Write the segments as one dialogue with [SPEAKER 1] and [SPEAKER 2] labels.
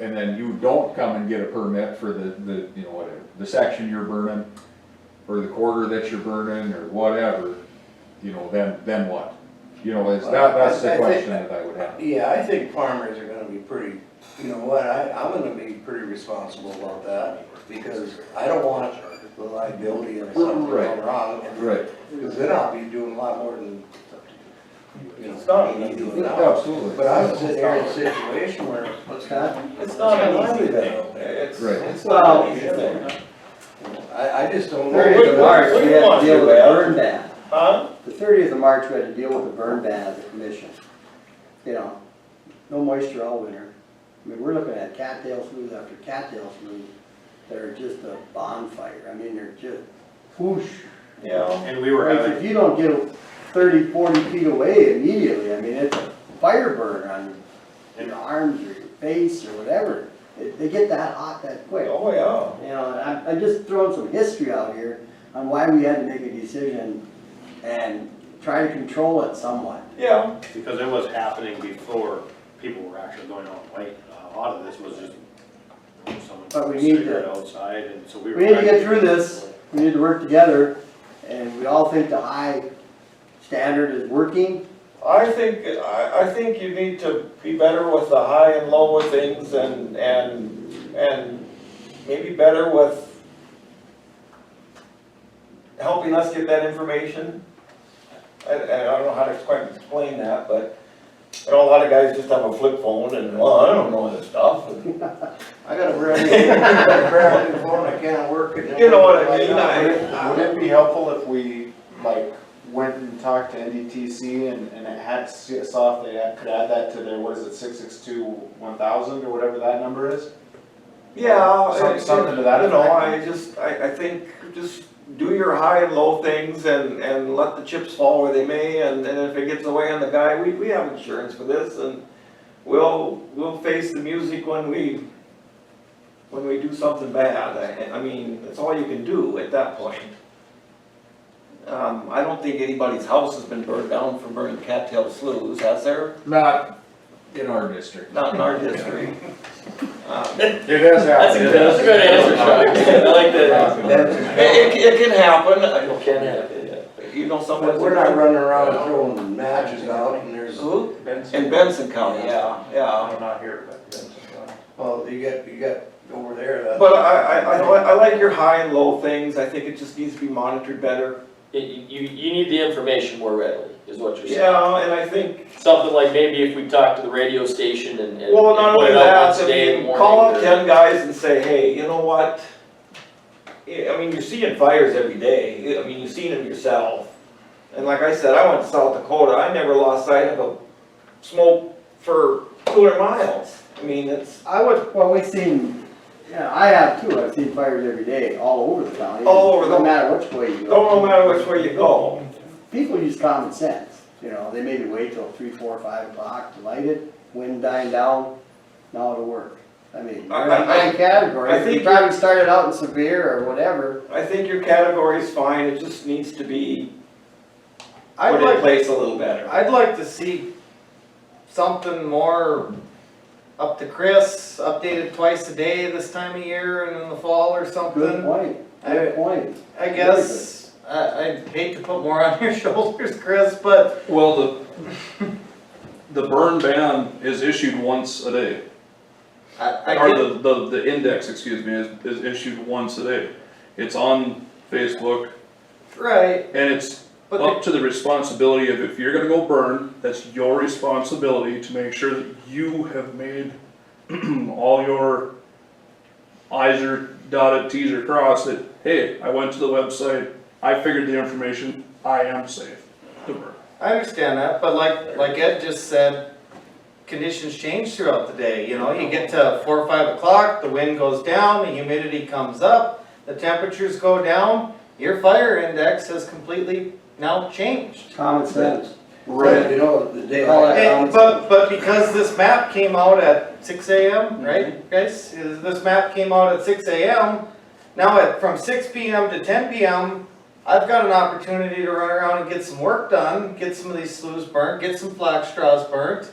[SPEAKER 1] and then you don't come and get a permit for the, the, you know, whatever, the section you're burning, or the quarter that you're burning, or whatever, you know, then, then what? You know, it's, that, that's
[SPEAKER 2] I-
[SPEAKER 1] the
[SPEAKER 2] I think-
[SPEAKER 1] question that I would have.
[SPEAKER 2] Yeah, I think farmers are gonna be pretty, you know what, I, I'm gonna be pretty responsible about that, because I don't want the liability of something
[SPEAKER 1] Right.
[SPEAKER 2] going wrong, and,
[SPEAKER 1] Right,
[SPEAKER 2] because then I'll be doing a lot more than, you know.
[SPEAKER 3] It's not an
[SPEAKER 2] you
[SPEAKER 3] easy
[SPEAKER 2] do
[SPEAKER 3] thing.
[SPEAKER 2] now.
[SPEAKER 1] absolutely.
[SPEAKER 2] But I was sitting here in a situation where,
[SPEAKER 4] What's that?
[SPEAKER 3] It's not an easy thing. It's,
[SPEAKER 1] Right.
[SPEAKER 3] it's not
[SPEAKER 4] Well,
[SPEAKER 3] an easy thing.
[SPEAKER 2] I, I just don't know.
[SPEAKER 3] Very
[SPEAKER 4] Thirtieth of
[SPEAKER 3] good.
[SPEAKER 4] March, we had
[SPEAKER 3] What
[SPEAKER 4] to deal with a
[SPEAKER 3] do you want,
[SPEAKER 4] burn ban.
[SPEAKER 3] Huh?
[SPEAKER 4] The thirtieth of March, we had to deal with a burn ban at the commission. You know, no moisture all winter. I mean, we're looking at cattail smooth after cattail smooth that are just a bonfire. I mean, they're just whoosh.
[SPEAKER 3] Yeah.
[SPEAKER 5] And we were
[SPEAKER 4] Like,
[SPEAKER 5] having,
[SPEAKER 4] if you don't get 30, 40 feet away immediately, I mean, it's a fire burn on your arms or your face or whatever. It- They get that hot that quick.
[SPEAKER 3] Oh, yeah.
[SPEAKER 4] You know, and I'm, I'm just throwing some history out here on why we had to make a decision and try to control it somewhat.
[SPEAKER 3] Yeah,
[SPEAKER 5] because it was happening before people were actually going out and waiting. A lot of this was just
[SPEAKER 4] But
[SPEAKER 5] someone
[SPEAKER 4] we need
[SPEAKER 5] figured
[SPEAKER 4] to-
[SPEAKER 5] outside and so we were.
[SPEAKER 4] We need to
[SPEAKER 5] trying
[SPEAKER 4] get through this, we need to work together, and we all think the high standard is working.
[SPEAKER 3] I think, I, I think you need to be better with the high and low of things and, and, and maybe better with helping us get that information. I, I don't know how to quite explain that, but, you know, a lot of guys just have a flip phone and, well, I don't know this stuff.
[SPEAKER 2] I got a brand new, I got a brand new phone, I can't work it.
[SPEAKER 3] You know what I mean, I-
[SPEAKER 6] Would it be helpful if we, like, went and talked to NDTC and, and it had, saw if they had- could add that to their, what is it, six six two one thousand or whatever that number is?
[SPEAKER 3] Yeah.
[SPEAKER 6] Some-
[SPEAKER 3] it-
[SPEAKER 6] something to that
[SPEAKER 3] You know, I
[SPEAKER 6] effect.
[SPEAKER 3] just, I, I think, just do your high and low things and, and let the chips fall where they may, and, and if it gets away on the guy, we, we have insurance for this, and we'll, we'll face the music when we, when we do something bad, I, I mean, that's all you can do at that point. Um, I don't think anybody's house has been burned down from burning cattail sloughs, has there?
[SPEAKER 1] Not in our district.
[SPEAKER 3] Not in our history. Um,
[SPEAKER 1] It has happened.
[SPEAKER 3] That's a good answer, Chuck. I like that.
[SPEAKER 1] that.
[SPEAKER 3] It, it, it can happen. It can happen. You know,
[SPEAKER 2] But
[SPEAKER 3] someone.
[SPEAKER 2] we're not running around throwing matches out, and there's,
[SPEAKER 3] Who? In Benson County, yeah, yeah.
[SPEAKER 5] I'm not here, but that's-
[SPEAKER 2] well, you got, you got over there, that's.
[SPEAKER 3] But I, I, I, li- I like your high and low things. I think it just needs to be monitored better.
[SPEAKER 7] You, you, you need the information more readily, is what you're saying.
[SPEAKER 3] Yeah, and I think,
[SPEAKER 7] Something like maybe if we talk to the radio station and, and.
[SPEAKER 3] well, not
[SPEAKER 7] and put
[SPEAKER 3] only
[SPEAKER 7] it out
[SPEAKER 3] that,
[SPEAKER 7] once a
[SPEAKER 3] I
[SPEAKER 7] day in the
[SPEAKER 3] mean,
[SPEAKER 7] morning
[SPEAKER 3] call up
[SPEAKER 7] or-
[SPEAKER 3] ten guys and say, hey, you know what? Yeah, I mean, you're seeing fires every day. I mean, you've seen them yourself. And like I said, I went to South Dakota. I never lost sight of a smoke for two hundred miles. I mean, it's.
[SPEAKER 4] I would, well, we've seen, yeah, I have too, I've seen fires every day, all over the county.
[SPEAKER 3] All over the-
[SPEAKER 4] No matter which way you go.
[SPEAKER 3] Don't no matter which way you go.
[SPEAKER 4] People use common sense, you know, they maybe wait till three, four, five o'clock to light it, wind dying down, now it'll work. I mean,
[SPEAKER 3] I- I-
[SPEAKER 4] they're in my category,
[SPEAKER 3] I
[SPEAKER 4] if you
[SPEAKER 3] think-
[SPEAKER 4] probably started out in severe or whatever.
[SPEAKER 3] I think your category is fine, it just needs to be
[SPEAKER 8] I'd
[SPEAKER 3] put in
[SPEAKER 8] like,
[SPEAKER 3] place a little better.
[SPEAKER 8] I'd like to see something more up to Chris, updated twice a day this time of year and in the fall or
[SPEAKER 4] Good
[SPEAKER 8] something.
[SPEAKER 4] point,
[SPEAKER 8] I-
[SPEAKER 4] good point.
[SPEAKER 8] I guess, I, I'd hate to put more on your shoulders, Chris, but
[SPEAKER 9] Well, the, the burn ban is issued once a day,
[SPEAKER 8] I, I
[SPEAKER 9] or
[SPEAKER 8] get,
[SPEAKER 9] the, the, the index, excuse me, is, is issued once a day. It's on Facebook,
[SPEAKER 8] right,
[SPEAKER 9] and it's
[SPEAKER 8] but
[SPEAKER 9] up to the responsibility of if you're gonna go burn, that's your responsibility to make sure that you have made all your i's are dotted, t's are crossed, that, hey, I went to the website, I figured the information, I am safe to burn.
[SPEAKER 8] I understand that, but like, like Ed just said, conditions change throughout the day, you know, you get to four or five o'clock, the wind goes down, the humidity comes up, the temperatures go down, your fire index has completely now changed.
[SPEAKER 4] Common sense.
[SPEAKER 2] But, You know, the day.
[SPEAKER 4] Call it
[SPEAKER 8] And- But, but because this map came out at six
[SPEAKER 4] Mm-hmm.
[SPEAKER 8] AM, right, guys, Is- this map came out at six AM, now at, from six PM to ten PM, I've got an opportunity to run around and get some work done, get some of these sloughs burnt, get some flax straws burnt.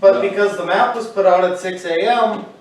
[SPEAKER 8] But because the map was put out at six AM,